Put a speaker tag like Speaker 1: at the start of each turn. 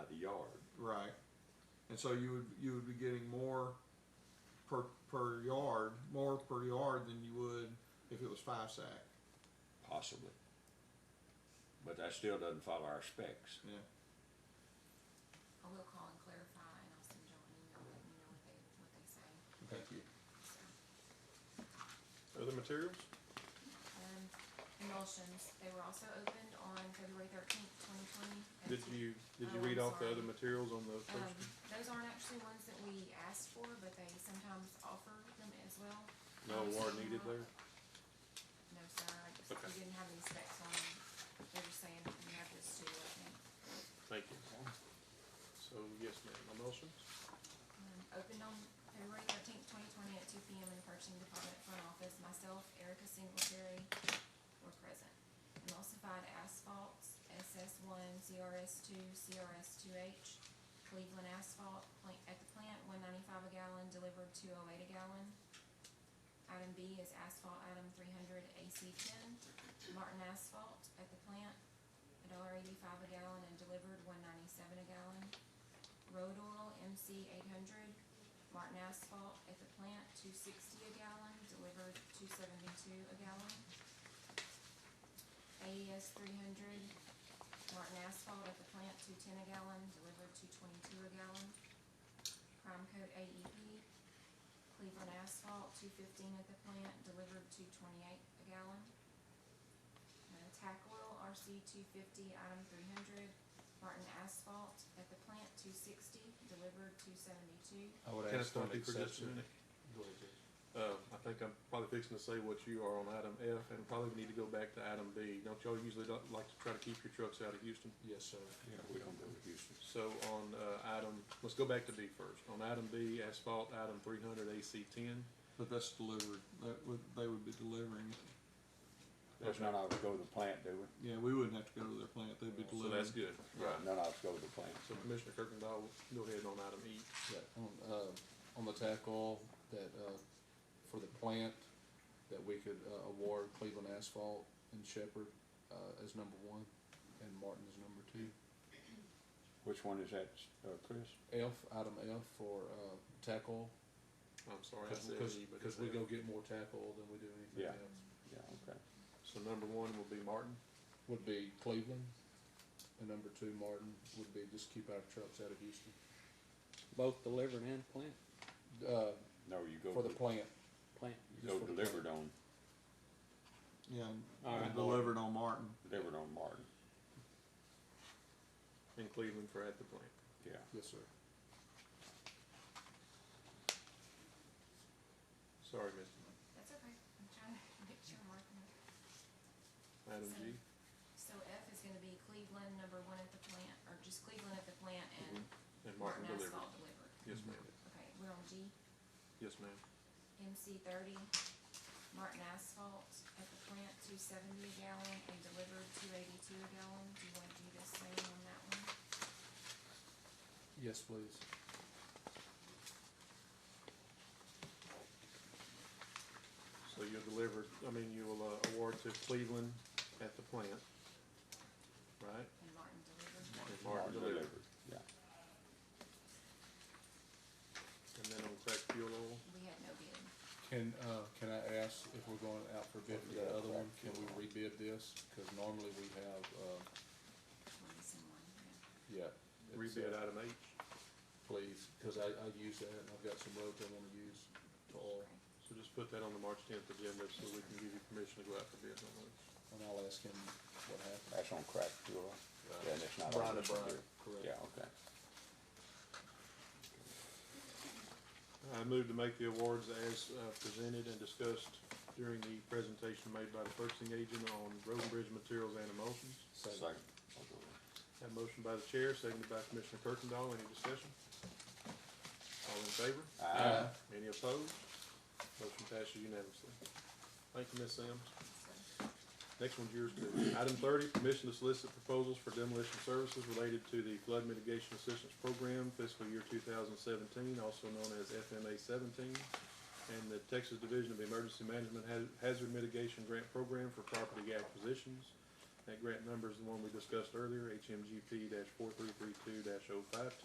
Speaker 1: yard.
Speaker 2: Right. And so you would, you would be getting more per, per yard, more per yard than you would if it was five sack.
Speaker 1: Possibly. But that still doesn't follow our specs.
Speaker 2: Yeah.
Speaker 3: I will call and clarify, and I'll send y'all an email letting you know what they, what they say.
Speaker 1: Thank you.
Speaker 3: So,
Speaker 4: Other materials?
Speaker 3: um, emulsions, they were also opened on February thirteenth, twenty twenty.
Speaker 4: Did you, did you
Speaker 3: Oh,
Speaker 4: read
Speaker 3: I'm
Speaker 4: off the
Speaker 3: sorry.
Speaker 4: other materials on the
Speaker 3: Um,
Speaker 4: first?
Speaker 3: those aren't actually ones that we asked for, but they sometimes offer them as well.
Speaker 4: No
Speaker 3: Um, so
Speaker 4: award
Speaker 3: we're
Speaker 4: needed
Speaker 3: not-
Speaker 4: there?
Speaker 3: No, sir, I just,
Speaker 4: Okay.
Speaker 3: we didn't have any specs on them. They were saying you have this too, I think.
Speaker 4: Thank you. So, yes, ma'am, emulsions?
Speaker 3: Um, Opened on February thirteenth, twenty twenty at two P M in the purchasing department front office. Myself, Erica Singletary were present. Emulsified asphalts, SS one, CRS two, CRS two H, Cleveland asphalt, plant, at the plant, one ninety-five a gallon, delivered two oh eight a gallon. Item B is asphalt item three hundred AC ten, Martin Asphalt at the plant, $1.85 a gallon and delivered one ninety-seven a gallon. Road oil MC eight hundred, Martin Asphalt at the plant, two sixty a gallon, delivered two seventy-two a gallon. AES three hundred, Martin Asphalt at the plant, two ten a gallon, delivered two twenty-two a gallon. Prime Coat AEP, Cleveland Asphalt, two fifteen at the plant, delivered two twenty-eight a gallon. Uh, Tac Oil RC two fifty, item three hundred, Martin Asphalt at the plant, two sixty, delivered two seventy-two.
Speaker 2: I would
Speaker 4: Can I stop you for just a minute? Go ahead, Judge. Uh, I think I'm probably fixing to say what you are on item F, and probably need to go back to item B. Don't y'all usually don't like to try to keep your trucks out of Houston?
Speaker 2: Yes, sir.
Speaker 1: Yeah, we don't go to Houston.
Speaker 4: So on uh, item, let's go back to B first. On item B, asphalt, item 300 AC 10.
Speaker 2: But that's delivered, that would, they would be delivering it.
Speaker 1: There's none of us go to the plant, do we?
Speaker 2: Yeah, we wouldn't have to go to their plant, they'd be
Speaker 4: So
Speaker 2: delivering.
Speaker 4: that's good. Right.
Speaker 1: None of us go to the plant.
Speaker 4: So Commissioner Kirkendall, go ahead on item E.
Speaker 5: Yeah, on, uh, on the tackle that, uh, for the plant, that we could, uh, award Cleveland Asphalt and Shepherd, uh, as number one, and Martin as number two.
Speaker 1: Which one is that, uh, Chris?
Speaker 5: F, item F for, uh, tackle,
Speaker 4: I'm sorry, I
Speaker 5: because,
Speaker 4: said E, but.
Speaker 5: because we go get more tackle than we do
Speaker 1: Yeah.
Speaker 5: anything else.
Speaker 1: Yeah, okay.
Speaker 4: So number one will be Martin.
Speaker 5: Would be Cleveland, and number two, Martin, would be just keep our trucks out of Houston,
Speaker 6: Both delivered and plant,
Speaker 5: uh,
Speaker 1: No, you go.
Speaker 5: for the
Speaker 1: to-
Speaker 5: plant.
Speaker 6: plant.
Speaker 1: You go delivered on,
Speaker 2: Yeah, and
Speaker 6: All right.
Speaker 2: delivered on Martin.
Speaker 1: delivered on Martin,
Speaker 4: in Cleveland for at the plant.
Speaker 1: yeah.
Speaker 5: Yes, sir.
Speaker 4: Sorry, Mr.
Speaker 3: That's okay, I'm trying to make sure I'm marking it.
Speaker 4: Item G.
Speaker 3: So F is gonna be Cleveland, number one at the plant, or just Cleveland at the plant and
Speaker 4: And Mm-hmm. Martin
Speaker 3: Martin
Speaker 4: delivered.
Speaker 3: Asphalt delivered.
Speaker 4: Yes, ma'am.
Speaker 3: Okay, we're on G.
Speaker 4: Yes, ma'am.
Speaker 3: MC thirty, Martin Asphalt at the plant, two seventy a gallon, and delivered two eighty-two a gallon. Do you want to do the same on that one?
Speaker 5: Yes, please.
Speaker 4: So you'll deliver, I mean, you will uh, award to Cleveland at the plant, right?
Speaker 3: And Martin delivered.
Speaker 4: And Martin delivered.
Speaker 1: Yeah.
Speaker 4: And then on crack fuel oil,
Speaker 3: We had no bid.
Speaker 5: Can, uh, can I ask if we're going out for bid for that other one? Can we rebid this? Because normally we have, uh,
Speaker 3: We're missing one, yeah.
Speaker 5: yeah. it's,
Speaker 4: rebid
Speaker 5: uh,
Speaker 4: item H.
Speaker 5: Please, because I, I use that and I've got some roads I want to use to oil.
Speaker 3: Okay.
Speaker 4: So just put that on the March tenth agenda so we can give you permission to go out for bid on those.
Speaker 5: And I'll ask him what happened.
Speaker 1: That's on crack fuel. Yeah, that's not. on
Speaker 5: Brian and Brian,
Speaker 1: Correct. Yeah, okay.
Speaker 4: I move to make the awards as uh, presented and discussed during the presentation made by the purchasing agent on road and bridge materials and emulsions.
Speaker 5: Second.
Speaker 1: I'll go with it.
Speaker 4: Have a motion by the chair, seconded by Commissioner Kirkendall. Any discussion? All in favor?
Speaker 1: Aye.
Speaker 4: Any opposed? Motion passes unanimously. Thank you, Ms. Sims.
Speaker 3: So-
Speaker 4: Next one's yours, Bill. Item thirty, permission to solicit proposals for demolition services related to the flood mitigation assistance program fiscal year two thousand seventeen, also known as FMA seventeen, and the Texas Division of Emergency Management Ha- Hazard Mitigation Grant Program for property acquisitions. That grant number is the one we discussed earlier, HMGP dash four three three two dash oh five two.